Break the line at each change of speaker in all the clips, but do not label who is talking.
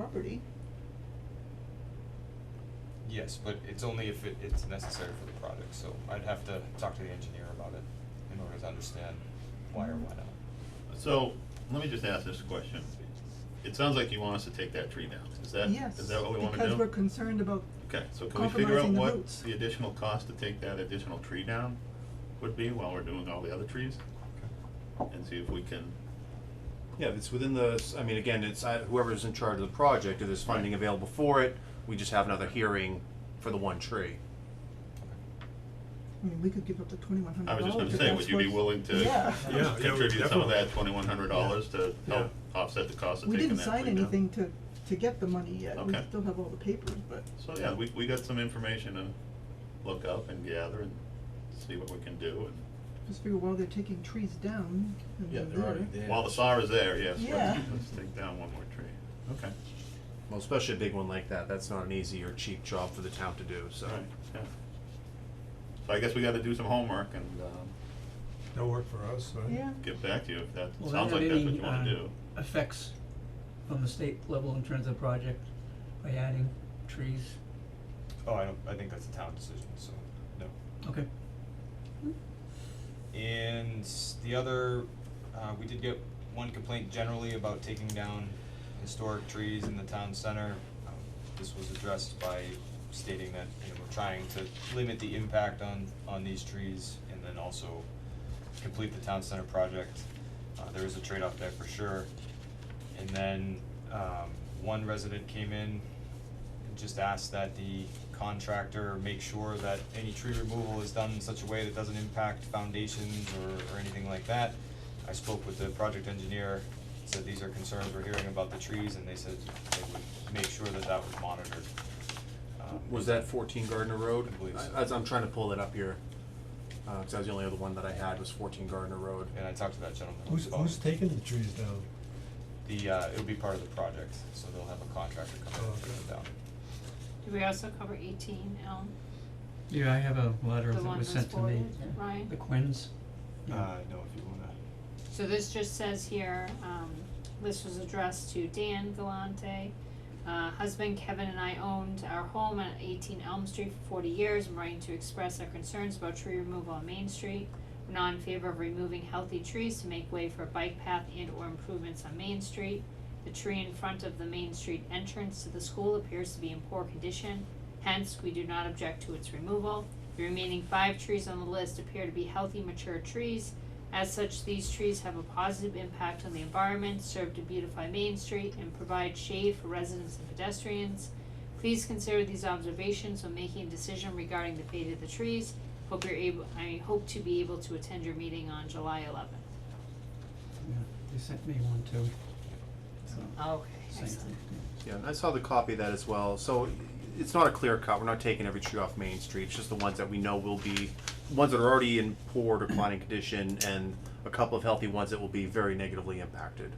property.
Yes, but it's only if it, it's necessary for the project, so I'd have to talk to the engineer about it in order to understand why or why not.
So, let me just ask this question. It sounds like you want us to take that tree down. Is that, is that what we wanna do?
Yes, because we're concerned about
Okay, so can we figure out
compromising the
what
roots.
the additional cost to take that additional tree down would be while we're doing all the other trees? And see if we can,
Yeah, if it's within the, s- I mean, again, it's uh, whoever's in charge of the project, if there's funding available for it, we just have another hearing for the one tree.
I mean, we could give up the twenty-one hundred
I was
dollars.
just gonna say, would you be willing to
Oh, Yeah.
Yeah, yeah, we
contribute some of
definitely.
that twenty-one hundred dollars to
Yeah.
help offset the cost of
We
taking
didn't
that
sign
tree down?
anything to, to get the money yet, we
Okay.
still have all the papers, but,
So, yeah, we, we got some information to look up and gather and see what we can do and
just figure while they're taking trees down, and
Yeah,
they're
they're already there.
while the saw is there, yes, let's,
Yeah.
let's take down one more tree. Okay,
Well, especially a big one like that, that's not an easy or cheap job for the town to do, so.
all right, yeah. So I guess we gotta do some homework and, um,
No work for us, right?
Yeah,
get back to you if that
Well, there
sounds like
aren't
that's what
any,
you wanna
uh,
do.
Effects from the state level in terms of project by adding trees,
Oh, I don't, I think that's a town decision, so, no.
okay,
And the other, uh, we did get one complaint generally about taking down historic trees in the town center. Um, This was addressed by stating that, you know, we're trying to limit the impact on, on these trees and then also complete the town center project. Uh, there is a trade-off there for sure. And then, um, one resident came in and just asked that the contractor make sure that any tree removal is done in such a way that doesn't impact foundations or, or anything like that. I spoke with the project engineer, said these are concerns we're hearing about the trees, and they said they would make sure that that was monitored. Um,
Uh, Was that fourteen Gardner Road?
I believe so.
I, am trying to pull it up here, Uh 'cause that was the only other one that I had, was fourteen Gardner Road.
And I talked to that gentleman.
Who's,
about
who's taking the trees down?
The, uh, it'll be part of the project, so they'll have a contractor come in and take it down.
Do we also cover eighteen Elm,
yeah, I have a letter
the
that
one
was
that's
sent to me,
forwarded, Ryan?
the Quins. yeah.
Uh, no, if you wanna.
So this just says here, um, this was addressed to Dan Galante. Uh, husband Kevin and I owned our home at eighteen Elm Street for forty years, I'm writing to express our concerns about tree removal on Main Street. We're not in favor of removing healthy trees to make way for a bike path and or improvements on Main Street. The tree in front of the Main Street entrance to the school appears to be in poor condition, hence we do not object to its removal. The remaining five trees on the list appear to be healthy mature trees. As such, these trees have a positive impact on the environment, serve to beautify Main Street, and provide shade for residents and pedestrians. Please consider these observations when making a decision regarding the fate of the trees. Hope you're able, I hope to be able to attend your meeting on July eleventh.
Yeah, they sent me one too, so,
Okay,
same
Oh, excellent.
thing,
Yeah, and I saw the copy of that as well, so it's not a clear cut, we're not taking every tree off Main Street, it's just the ones that we know will be, ones that are already in poor declining condition, and a couple of healthy ones that will be very negatively impacted.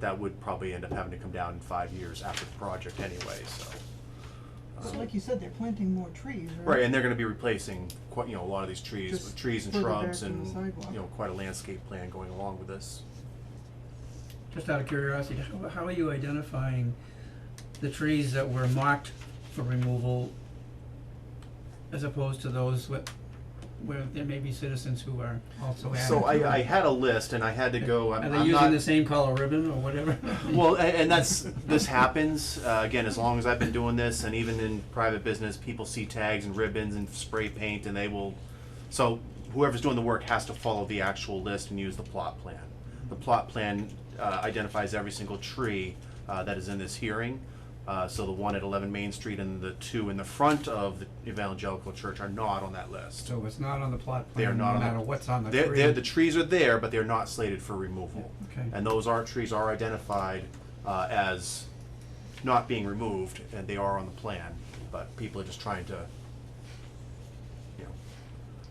That would probably end up having to come down in five years after the project anyway, so.
so
Um,
like you said, they're planting more trees, right?
Right, and they're gonna be replacing quite, you know, a lot of these trees,
Just
with trees and
further back
shrubs
from the
and,
sidewalk.
you know, quite a landscape plan going along with this.
Just out of curiosity, how, how are you identifying the trees that were marked for removal as opposed to those with, where there may be citizens who are also adding
So
to
I, I
it?
had a list and I had to go, I'm,
Are
I'm
they
not.
using the same color ribbon or whatever?
Well, a- and that's, this happens, uh, again, as long as I've been doing this, and even in private business, people see tags and ribbons and spray paint, and they will, so whoever's doing the work has to follow the actual list and use the plot plan. The plot plan uh, identifies every single tree uh, that is in this hearing. Uh, So the one at 11 Main Street and the two in the front of the Evangelical Church are not on that list.
So it's not on the plot
They are
plan,
not
no
on the-
matter what's on the tree.
They're, they're, the trees are there, but they're not slated for removal.
Okay.
And those are, trees are identified, uh, as not being removed, and they are on the plan, but people are just trying to, you know.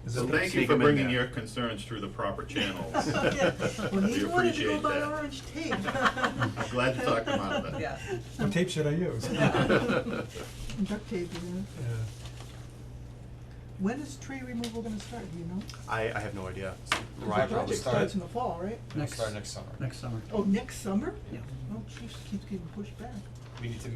Is
So
it,
Okay.
thank you
Sneak
for
'em in
bringing
there.
your concerns through the proper channels.
Yeah. Well,
We
he wanted to go
appreciate
buy
that.
orange tape.
I'm glad you talked him out of it.
Yeah.
what tape should I use?
And Duct tape, you know,
Yeah.
when is tree removal gonna start, do you know? 'Cause
I, I have no idea.
the
Right,
project
probably.
start-
starts in the fall, right?
We'll
Next-
Start next summer.
Next summer.
Oh, next summer?
Yeah.
Oh, jeez, keeps getting pushed back.
We need to